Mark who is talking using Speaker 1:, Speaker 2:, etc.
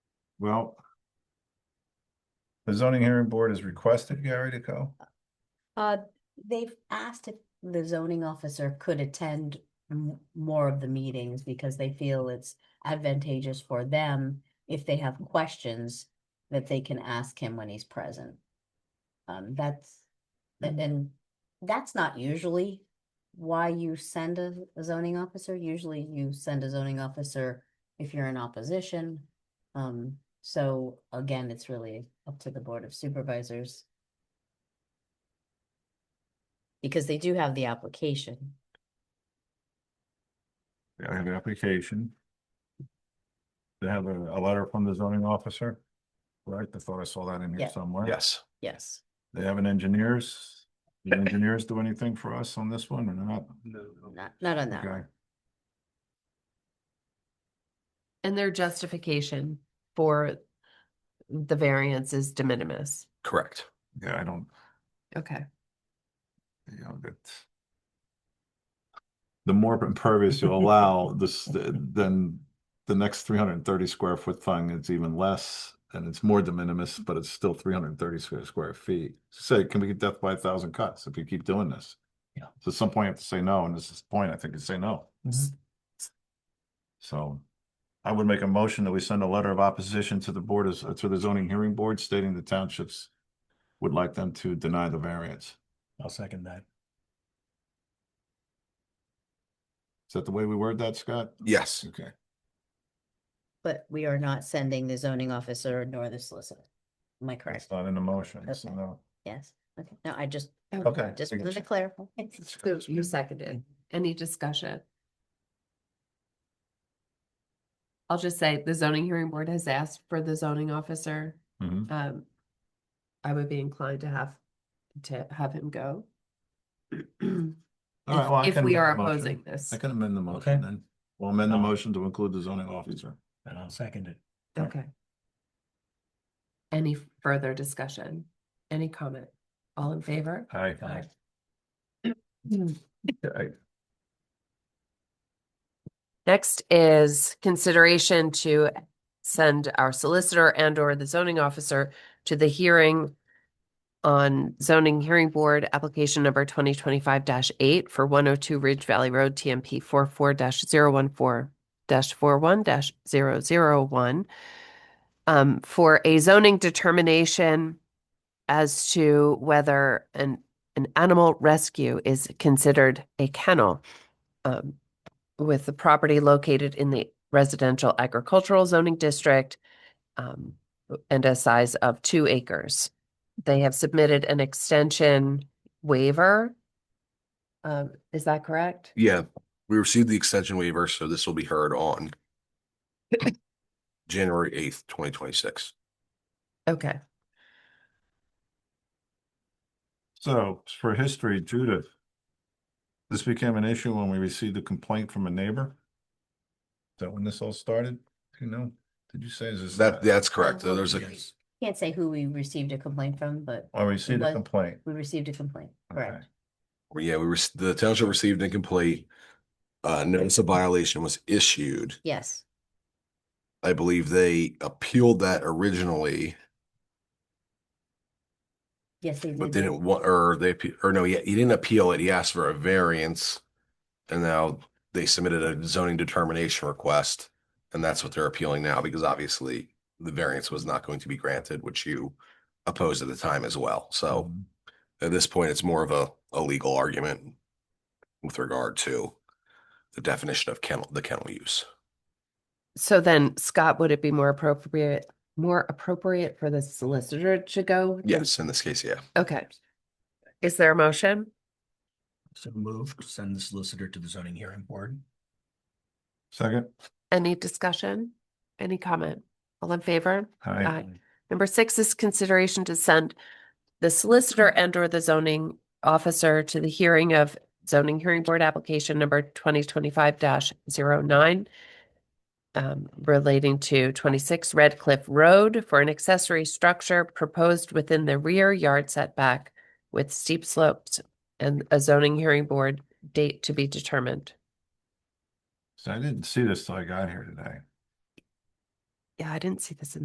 Speaker 1: Well. The zoning hearing board has requested Gary to go.
Speaker 2: Uh, they've asked if the zoning officer could attend m- more of the meetings because they feel it's advantageous for them if they have questions that they can ask him when he's present. Um, that's, and, and that's not usually why you send a a zoning officer. Usually you send a zoning officer if you're in opposition. Um, so again, it's really up to the Board of Supervisors. Because they do have the application.
Speaker 1: They have an application. They have a, a letter from the zoning officer, right? I thought I saw that in
Speaker 2: Yeah.
Speaker 1: here somewhere.
Speaker 3: Yes.
Speaker 2: Yes.
Speaker 1: They have an engineers. The engineers do anything for us on this one or not?
Speaker 2: Not, not on that
Speaker 1: Okay,
Speaker 2: one.
Speaker 4: And their justification for the variance is de minimis.
Speaker 3: Correct.
Speaker 1: yeah, I don't,
Speaker 4: Okay.
Speaker 1: you know, that. The more impervious you allow, this, then the next three hundred and thirty square foot thing, it's even less. And it's more de minimis, but it's still three hundred and thirty square square feet. Say, can we get death by a thousand cuts if you keep doing this?
Speaker 3: Yeah.
Speaker 1: So at some point you have to say no, and this is the point, I think, is say no. So I would make a motion that we send a letter of opposition to the board, as- to the zoning hearing board stating the townships would like them to deny the variance.
Speaker 3: I'll second that.
Speaker 1: Is that the way we word that, Scott?
Speaker 3: Yes.
Speaker 1: Okay,
Speaker 2: But we are not sending the zoning officer nor the solicitor. Am I correct?
Speaker 1: it's not in the motion, so
Speaker 2: Okay.
Speaker 1: no.
Speaker 2: Yes. Okay. No, I just,
Speaker 1: Okay.
Speaker 2: just
Speaker 1: I
Speaker 2: wanted to
Speaker 1: getcha.
Speaker 2: clarify.
Speaker 4: Who who seconded? Any discussion? I'll just say the zoning hearing board has asked for the zoning officer.
Speaker 1: Mhm.
Speaker 4: Um, I would be inclined to have, to have him go.
Speaker 1: All right, well, I
Speaker 4: If
Speaker 1: can
Speaker 4: we
Speaker 1: amend
Speaker 4: are
Speaker 1: the motion.
Speaker 4: opposing this.
Speaker 1: I can amend the motion
Speaker 5: Okay.
Speaker 1: then. We'll amend the
Speaker 5: Oh.
Speaker 1: motion to include the zoning officer.
Speaker 5: And I'll second it.
Speaker 4: Okay. Any further discussion? Any comment? All in favor?
Speaker 1: Aye.
Speaker 5: Aye.
Speaker 1: Aye.
Speaker 4: Next is consideration to send our solicitor and or the zoning officer to the hearing on zoning hearing board application number twenty twenty-five eight for one oh two Ridge Valley Road TMP 44 one four one Um, for a zoning determination as to whether an, an animal rescue is considered a kennel. Um, with the property located in the residential agricultural zoning district um, and a size of two acres. They have submitted an extension waiver. Um, is that correct?
Speaker 3: Yeah, we received the extension waiver, so this will be heard on January eighth, twenty twenty-six.
Speaker 4: Okay.
Speaker 1: So for history, Judith. This became an issue when we received a complaint from a neighbor. Is that when this all started? Do you know? Did you say is this?
Speaker 3: That, that's correct.
Speaker 2: well,
Speaker 3: There's a,
Speaker 2: yes. Can't say who we received a complaint from, but
Speaker 1: I received a
Speaker 2: Like-
Speaker 1: complaint.
Speaker 2: we received a complaint.
Speaker 1: Okay.
Speaker 2: Correct.
Speaker 3: yeah, we were, the township received incomplete. Uh, notice of violation was issued.
Speaker 2: Yes.
Speaker 3: I believe they appealed that originally,
Speaker 2: Yes, they
Speaker 3: but
Speaker 2: did.
Speaker 3: didn't want, or they, appe- or no, he, he didn't appeal it. He asked for a variance. And now they submitted a zoning determination request. And that's what they're appealing now, because obviously the variance was not going to be granted, which you opposed at the time as well. So
Speaker 1: Mhm.
Speaker 3: at this point, it's more of a, a legal argument with regard to the definition of kennel, the kennel use.
Speaker 4: So then Scott, would it be more appropriate, more appropriate for the solicitor to go? than-
Speaker 3: Yes, in this case, yeah.
Speaker 4: Okay. Is there a motion?
Speaker 5: So move, send the solicitor to the zoning hearing board.
Speaker 1: Second?
Speaker 4: Any discussion? Any comment? All in favor?
Speaker 1: Hi.
Speaker 4: Aye. Number six is consideration to send the solicitor and or the zoning officer to the hearing of zoning hearing board application number twenty twenty-five 9 um, relating to twenty-six Red Cliff Road for an accessory structure proposed within the rear yard setback with steep slopes and a zoning hearing board date to be determined.
Speaker 1: So I didn't see this till I got here today.
Speaker 4: Yeah, I didn't see this in